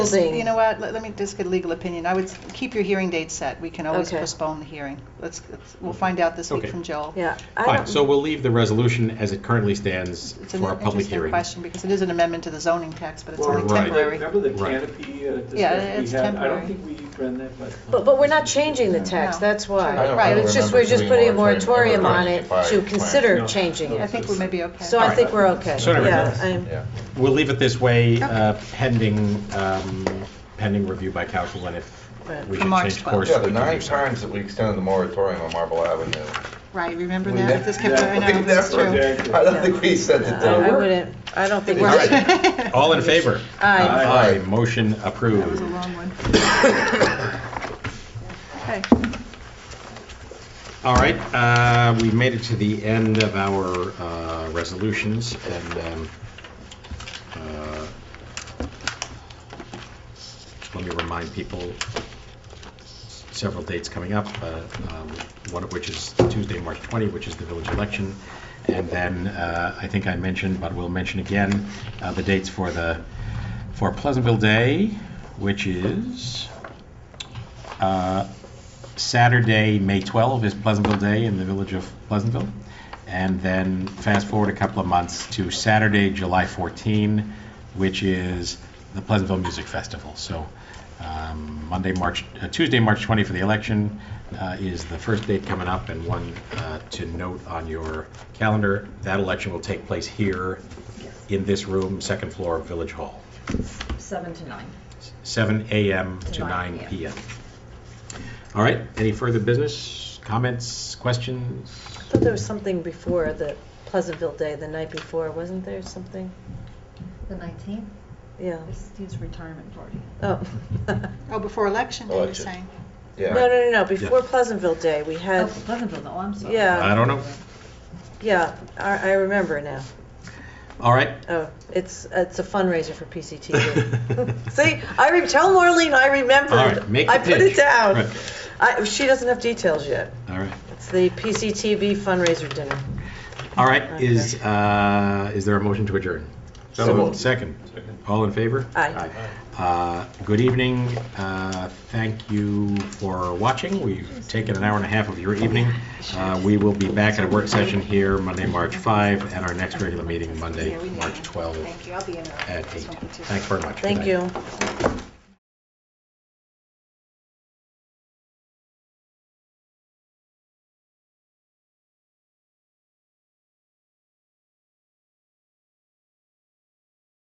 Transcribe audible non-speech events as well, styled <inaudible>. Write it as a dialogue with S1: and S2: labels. S1: Housing.
S2: You know what, let let me just get a legal opinion. I would s- keep your hearing date set. We can always
S1: Okay.
S2: postpone the hearing. Let's, let's- we'll find out this week
S3: Okay.
S2: from Joel.
S1: Yeah. I
S3: Fine,
S1: don't-
S3: so we'll leave the resolution as it currently stands
S2: It's an
S3: for our public
S2: interesting
S3: hearing.
S2: question because it is an amendment to the zoning text, but it's
S3: Well,
S2: only
S3: right.
S2: temporary.
S4: Remember the
S3: Right.
S4: canopy uh, discussion we
S2: Yeah, it's
S4: had? I
S2: temporary.
S4: don't think we ran that by.
S1: But, but we're not changing the tax,
S2: No.
S1: that's
S2: I
S1: why.
S2: don't- I don't
S1: It's just, we're
S5: remember
S1: just
S5: doing
S1: putting a
S5: moratorium
S1: moratorium on it
S5: ever,
S1: to
S5: right.
S1: consider
S4: No.
S1: changing
S2: I
S1: it.
S2: think we may be okay.
S1: So I think we're okay.
S3: So anyway,
S1: Yeah,
S3: that's-
S1: I'm,
S5: Yeah.
S3: We'll leave it this way, uh, pending, um, pending review by council, and if
S1: Right.
S3: we
S2: For
S3: should
S2: March
S3: change
S2: 12th.
S3: course,
S5: Yeah,
S3: we
S5: the
S3: can
S5: nine
S3: do so.
S5: times that we extended the moratorium on Marble Avenue.
S2: Right, remember
S5: we
S2: that?
S5: never-
S2: This kept, I know,
S5: <laughs> we
S2: that's
S5: never
S2: true.
S5: did. I don't think we said
S1: I
S5: that.
S1: Uh, I wouldn't, I don't think
S3: All
S2: <laughs>
S1: we're, <laughs>
S3: right. All in favor?
S1: aye.
S3: Aye, motion
S2: That was
S3: approved.
S2: a long one. Okay.
S3: All right, uh, we made it to the end of our uh, resolutions, and um, uh, let me remind people, several dates coming up, uh, um, one of which is Tuesday, March 20, which is the village election, and then, uh, I think I mentioned, but we'll mention again, uh, the dates for the, for Pleasantville Day, which is uh, Saturday, May 12, is Pleasantville Day in the village of Pleasantville. And then fast forward a couple of months to Saturday, July 14, which is the Pleasantville Music Festival. So um, Monday, March, uh, Tuesday, March 20 for the election uh, is the first date coming up and one uh, to note on your calendar. That election will take place here in this room, second floor of Village Hall,
S6: Seven to nine.
S3: 7 a.m. to
S6: 9
S3: 9 p.m. All right, any further business, comments, questions?
S1: I thought there was something before the Pleasantville Day, the night before, wasn't there something?
S6: The nineteenth
S1: Yeah,
S6: is Steve's retirement party.
S1: oh. No,
S2: Oh, before election, day, you're
S5: Election.
S2: saying?
S5: <coughs> Yeah.
S1: no, no, no, before Pleasantville Day, we
S6: Oh,
S1: had,
S6: Pleasantville, no, I'm sorry.
S1: Yeah.
S3: I don't know.
S1: yeah, I, I remember now.
S3: All right.
S1: Oh, it's, it's a fundraiser for PCTV. See, I, re- tell Marlene I remembered.
S3: All right, make the
S1: I put it
S3: pitch.
S1: down.
S3: Right.
S1: I, she doesn't have details yet.
S3: All right.
S1: It's the PCTV fundraiser dinner.
S3: All right, is, uh, is there a motion to adjourn?
S5: So moved.
S3: Second. All in favor?
S1: Aye.
S3: Aye. Uh, Good evening. Uh, Thank you for watching. We've taken an hour and a half of your evening. Uh, We will be back at a work session here Monday, March 5, and our next regular meeting Monday, March 12
S2: Thank you, I'll be in.
S3: at 8. Thanks very much. Good
S1: Thank
S3: night.
S1: you.